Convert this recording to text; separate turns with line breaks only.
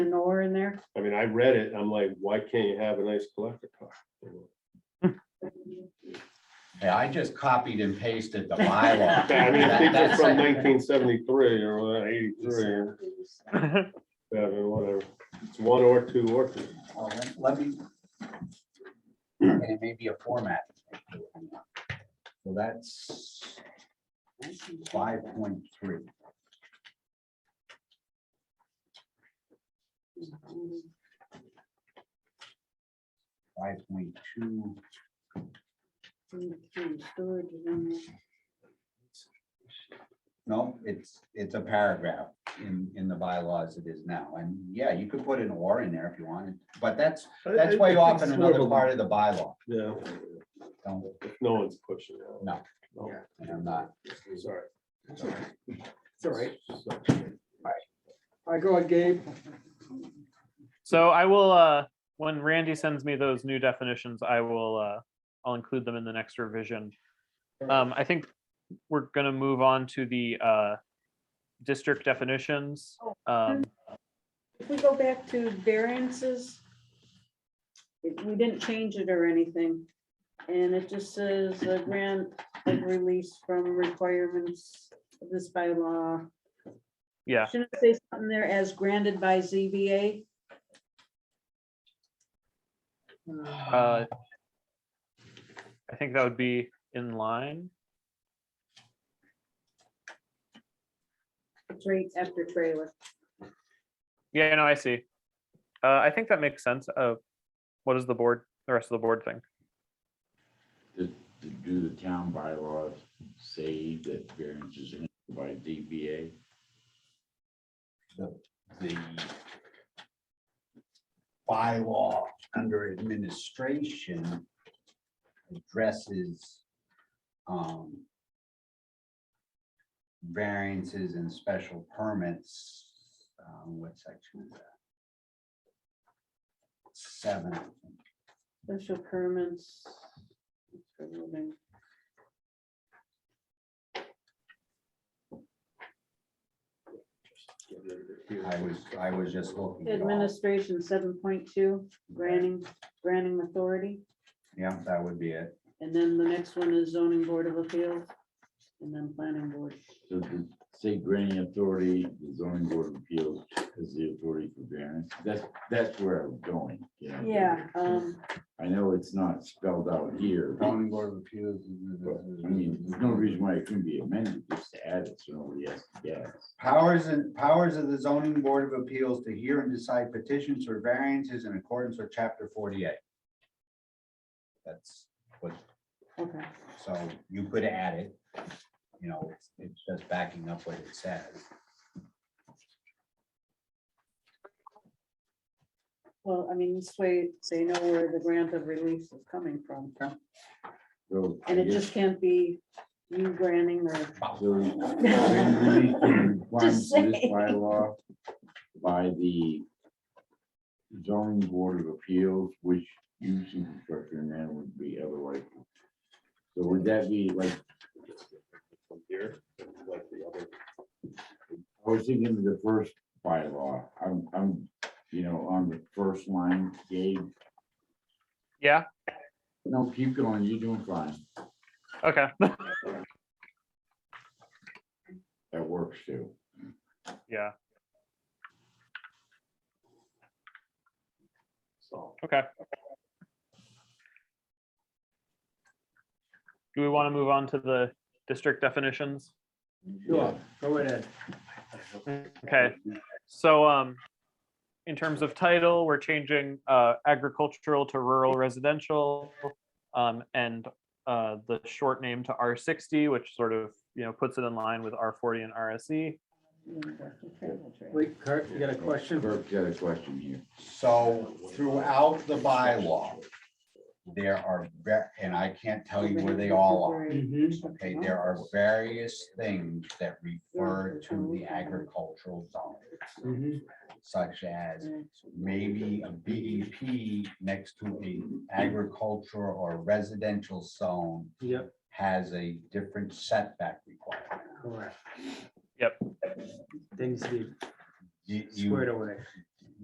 in there?
I mean, I read it, I'm like, why can't you have a nice collector car?
Yeah, I just copied and pasted the bylaw.
I mean, I think they're
That's
from
it.
nineteen seventy-three or eighty-three, or whatever, whatever. It's one or two or three.
Well, let- Let me. And it may be a format. So that's five point three. Five point two. No, it's, it's a paragraph in, in the bylaws it is now. And yeah, you could put an or in there if you wanted, but that's, that's way off in another part of the bylaw.
Yeah,
Don't,
no one's pushing it.
No.
No.
I'm not.
Sorry.
It's all right. I go on, Gabe.
So I will, uh, when Randy sends me those new definitions, I will, uh, I'll include them in the next revision. Um, I think we're gonna move on to the, uh, district definitions. Um,
If we go back to variances, it- we didn't change it or anything. And it just says a grant of release from requirements of this bylaw.
yeah,
Shouldn't it say something there as granted by ZBA?
uh, I think that would be in line.
It's right after trailer.
Yeah, no, I see. Uh, I think that makes sense. Uh, what does the board, the rest of the board think?
to do the town bylaws say that variances are granted by DBA?
the bylaw under administration addresses um, variances and special permits. um, What section is that? Seven. I think.
Special permits. for living.
I was, I was just looking. it all.
Administration seven point two, granting, granting authority.
Yeah, that would be it.
And then the next one is zoning board of appeals. And then planning board.
So to say granting authority, the zoning board of appeals is the authority for variance. That's, that's where I'm going. you know?
Yeah, um,
I know it's not spelled out here, but
Zoning Board of Appeals.
I mean, there's no reason why it couldn't be amended, just to add it so nobody has to guess.
Powers and powers of the zoning board of appeals to hear and decide petitions or variances in accordance with chapter forty-eight. That's what,
okay,
so you could add it. You know, it's, it's just backing up what it says.
well, I mean, this way they know where the grant of release is coming from.
So I
And it
guess-
just can't be you granting or,
So, when we requirements of this
saying.
bylaw By the zoning board of appeals, which using construction then would be otherwise. So would that be like,
From Here, like the other.
I was thinking of the first bylaw, I'm, I'm, you know, on the first line, Gabe.
Yeah,
No, keep going, you're doing fine,
okay.
that works too.
Yeah,
So,
okay. Do we want to move on to the district definitions?
Sure, go ahead.
Okay, so, um, in terms of title, we're changing, uh, agricultural to rural residential. Um, and, uh, the short name to R sixty, which sort of, you know, puts it in line with R E. forty and RSE.
Wait, Kurt, you got a question?
Kirk's got a question here.
So throughout the bylaw, there are, ver- and I can't tell you where they all are.
Mm-hmm.
Okay, there are various things that refer to the agricultural zone,
Mhm.
such as maybe a BEP next to an agricultural or residential zone
Yep,
has a different setback requirement.
correct.
Yep.
Things to be
You- you-
squared away.